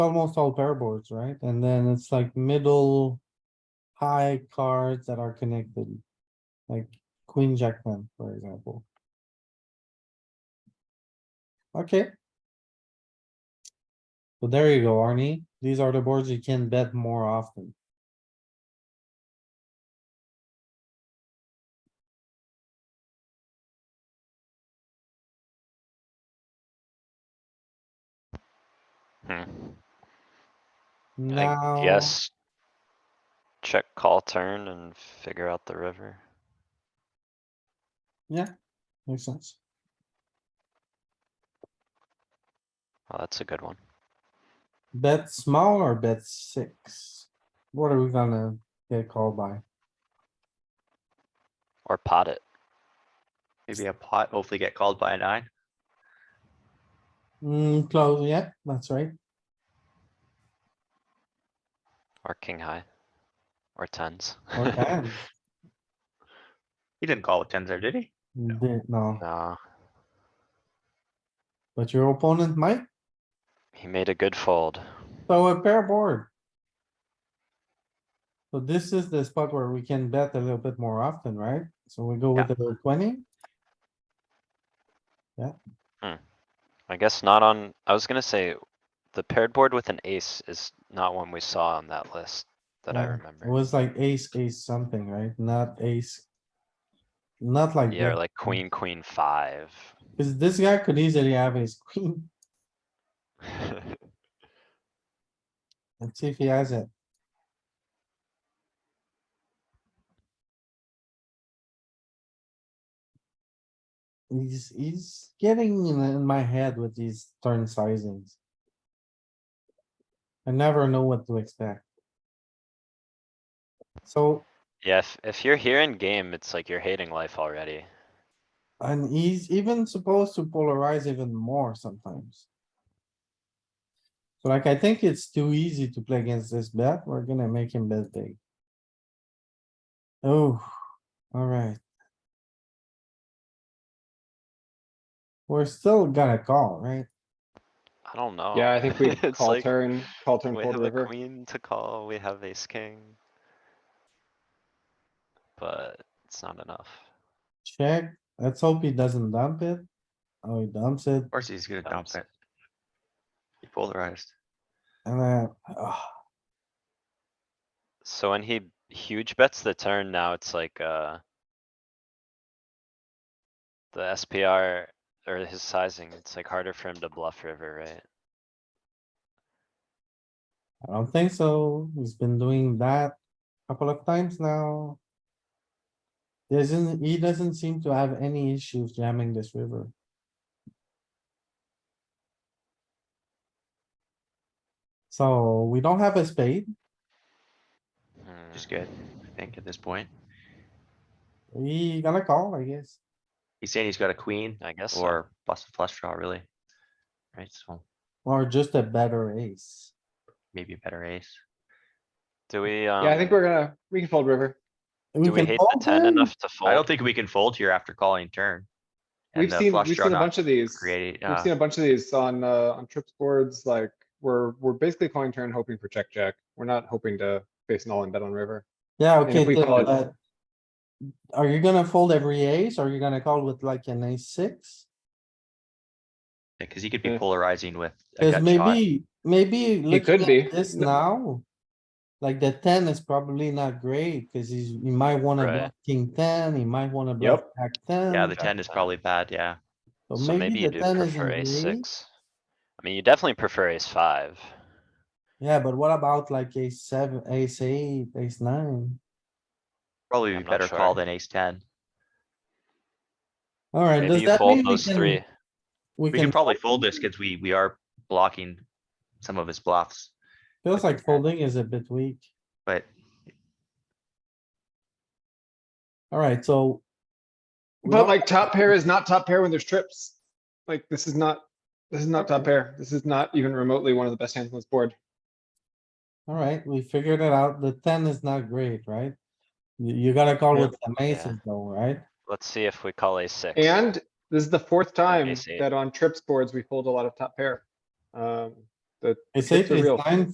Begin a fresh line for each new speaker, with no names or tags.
almost all pair boards, right? And then it's like middle. High cards that are connected. Like queen, jack, ten, for example. Okay. So there you go, Arnie. These are the boards you can bet more often.
Hmm,
Now.
I guess. Check call turn and figure out the river.
Makes sense.
Oh, that's a good one.
Bet small or bet six? What are we gonna get called by?
Or pot it.
Maybe a pot, hopefully get called by a nine.
Hmm, close, yeah, that's right.
Or king high. Or tens.
Or ten.
He didn't call with tens there, did he?
Did- No,
Nah,
but your opponent might
he made a good fold.
So a pair board. So this is the spot where we can bet a little bit more often, right? So we go with the twenty,
I guess not on, I was gonna say, the paired board with an ace is not one we saw on that list that I
Yeah, it
remember.
was like ace, ace something, right? Not ace. Not like,
Yeah, or
that,
like queen, queen five.
cause this guy could easily have his queen. Let's see if he has it. He's, he's getting in in my head with these turn sizings. I never know what to expect. So
Yeah, if, if you're here in game, it's like you're hating life already.
And he's even supposed to polarize even more sometimes. So like, I think it's too easy to play against this bet. We're gonna make him bet big. Oh, alright. We're still gonna call, right?
I don't know.
Yeah, I think we
It's
call
like,
turn, call turn,
We
fold
have a
river.
queen to call, we have ace king. But it's not enough.
Check. Let's hope he doesn't dump it. Oh, he dumps it
Of course he's gonna dump
Dumps.
it. He polarized.
and then, ah,
So when he huge bets the turn, now it's like, uh. The SPR or his sizing, it's like harder for him to bluff river, right?
I don't think so. He's been doing that a couple of times now. Doesn't, he doesn't seem to have any issues jamming this river. So we don't have a spade.
Hmm.
Just good. I think at this point.
We gotta call, I guess.
He's saying he's got a queen
I guess, so.
or plus a flush draw, really. Right, so
Or just a better ace.
maybe a better ace.
do we, um?
Yeah, I think we're gonna, we can fold river.
Do we
can
hate the
fold
ten
him.
enough to
I don't
fold?
think we can fold here after calling turn. And
We've
the
seen,
flush
we've
draw
seen a
not
bunch of these.
Creating,
We've
uh,
seen a bunch of these on, uh, on trips boards, like, we're, we're basically calling turn hoping for check, check. We're not hoping to face an all in bet on river.
Yeah,
And if
okay,
we
Tim,
call it-
but. Are you gonna fold every ace? Are you gonna call with like an ace six?
yeah, cause he could be
Yeah.
polarizing with. a
Cause
gut shot.
maybe, maybe
could
looking
be.
at this
No.
now. Like the ten is probably not great, cause he's, he might wanna
Right.
block king ten, he might wanna block
Yep.
jack ten.
um,
Yeah, the
Jack
ten is
ten.
probably bad, yeah.
So maybe you
the
do
10
prefer
isn't
ace
great.
six. I mean, you definitely prefer ace five.
Yeah, but what about like ace seven, ace eight, ace nine?
Probably
I'm
be
not
better call
sure.
than ace ten.
Alright,
Maybe
does
you
that mean
fold
we
those three.
can? We
We can
can,
probably fold this because we, we are blocking some of his bluffs,
feels like folding is a bit weak.
but
Alright, so. we
But
don't-
like top pair is not top pair when there's trips. Like, this is not, this is not top pair. This is not even remotely one of the best hands on this board.
Alright, we figured it out. The ten is not great, right? You, you gotta call
Yeah.
with the aces though, right?
Let's see if we call ace six.
And this is the fourth time
ace eight.
that on trips boards, we fold a lot of top pair. Um, The
Ace
It's
eight,
a
ace
real-
nine